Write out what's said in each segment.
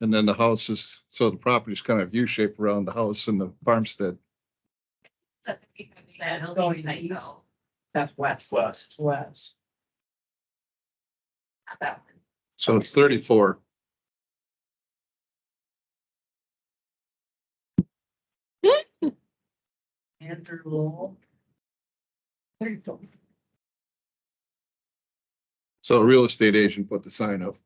And then the house is, so the property's kind of U-shaped around the house and the farmstead. That's the peak of the That's building going site, east. though. That's west. West. West. Not that one. So it's thirty-four. Andrew Lowell. There you go. So a real estate agent put the sign up.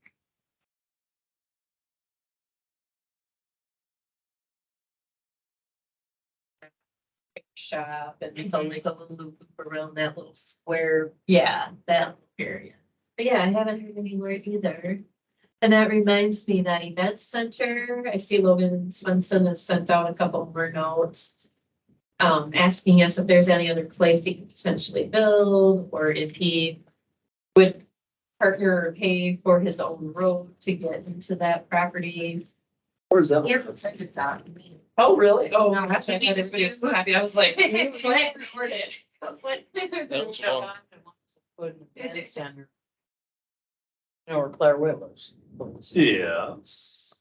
Shop and it's only a little loop around that little square. Yeah, that area. But yeah, I haven't heard any word either. And that reminds me that event center, I see Logan Swenson has sent out a couple more notes. Um, asking us if there's any other place he could potentially build or if he would partner or pay for his own road to get into that property. Where's that? He hasn't sent it out. to me. Oh, really? Oh, No, actually, I just was so happy. I was like. That's all. Or Claire Whitler's. Yes.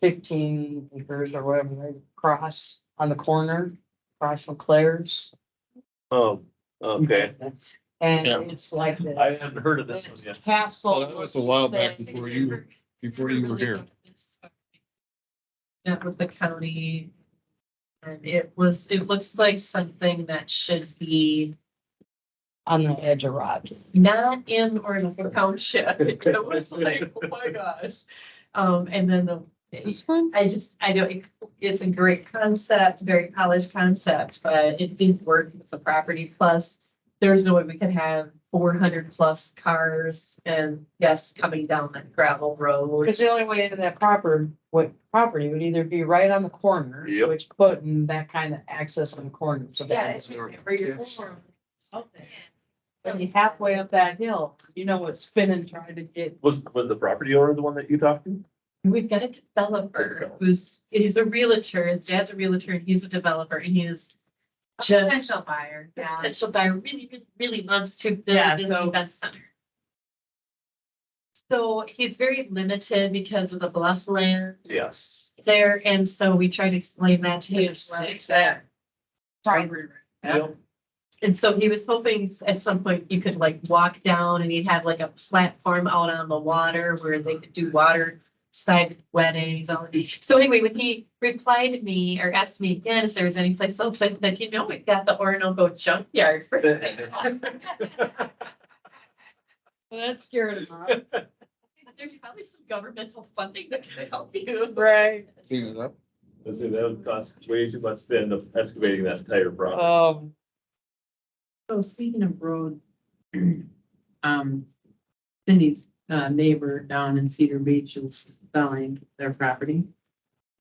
Fifteen acres or whatever, right across on the corner, across from Claire's. Oh, okay. And Yeah. it's like the I haven't heard of this one yet. castle. Well, that was a while back before you, before you were here. Met with the county. And it was, it looks like something that should be On the edge of Roger. not in Orinoco Township. It was like, oh my gosh. Um, and then the, one? I just, I don't, it's a great concept, very polished concept, but it didn't work with the property. Plus, there's no way we could have four hundred plus cars and yes, coming down that gravel road. Because the only way into that proper, what property would either be right on the corner, Yep. which putting that kind of access on the corner, so. that- When you're halfway up that hill, you know what's spinning trying to get, Was, was the property owner the one that you talked to? We've got a developer who's, he's a realtor, his dad's a realtor, and he's a developer, and he is just. Potential buyer, yeah. Potential buyer really, really, really wants to Yeah, build an so- event center. So he's very limited because of the bluff land Yes. there, and so we try to explain that to him. as well. it's that. Property. Yep. And so he was hoping at some point you could like walk down and he'd have like a platform out on the water where they could do water side weddings, all of these. So anyway, when he replied to me or asked me again if there was any place else, I said, you know, we've got the Orinoco junkyard for sale." Well, that scared him off. There's probably some governmental funding that could help you. Right. Clean it up. I say that would cost way too much to end up excavating that entire property. Um, So speaking of roads, um, Cindy's uh, neighbor down in Cedar Beach is selling their property.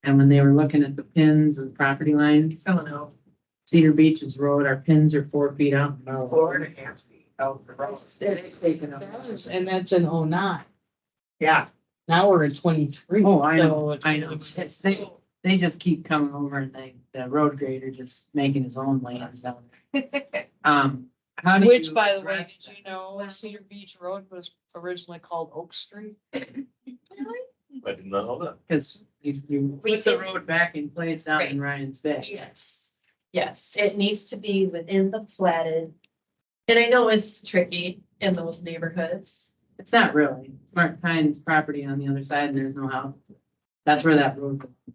And when they were looking at the pins and property lines, I don't know. Cedar Beach's road, our pins are four feet out. Four and a half feet out. the road. They've taken up- and that's in oh nine. Yeah, Now we're in twenty-three. Oh, I so know, it's- I know. It's, they, they just keep coming over and they, the road grader just making his own lands down. there. Um, how do you? Which, by the way, address did you know Cedar Beach Road was originally called Oak Street? I did not know that. Cause he's, you We put the did- road back in place down in Ryan's Bay. Yes, yes, it needs to be within the platted. And I know it's tricky in those neighborhoods. It's not really, it's Mark Pine's property on the other side and there's no house. That's where that road. goes.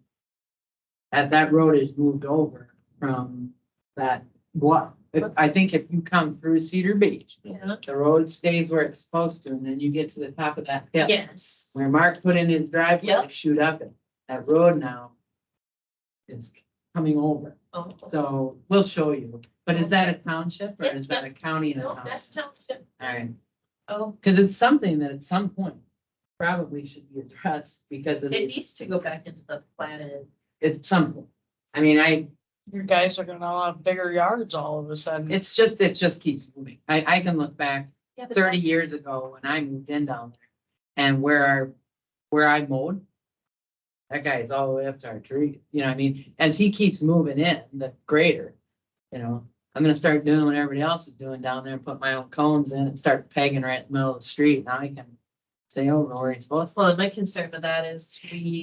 That, that road is moved over from that, what, I think if you come through Cedar Beach, Yeah. the road stays where it's supposed to and then you get to the top of that hill. Yes, Where Mark put in his driveway, Yep. shoot up it, that road now is coming over. oh, So we'll show you. But is that a township or is that a county and a no, township? that's township, All right, oh, because it's something that at some point probably should be addressed because it it is, needs to go back into the platted. it's something. I mean, I, You guys are gonna have bigger yards all of a sudden. it's just, it just keeps moving. I, I can look back Yeah, but thirty years ago when I moved in down there and where our, where I mowed. That guy is all the way up to our tree, you know, what I mean, as he keeps moving in, the greater, you know. I'm gonna start doing what everybody else is doing down there and put my own cones in and start pegging right in the middle of the street. Now I can say, oh, Lori's, well, Well, my concern with that is we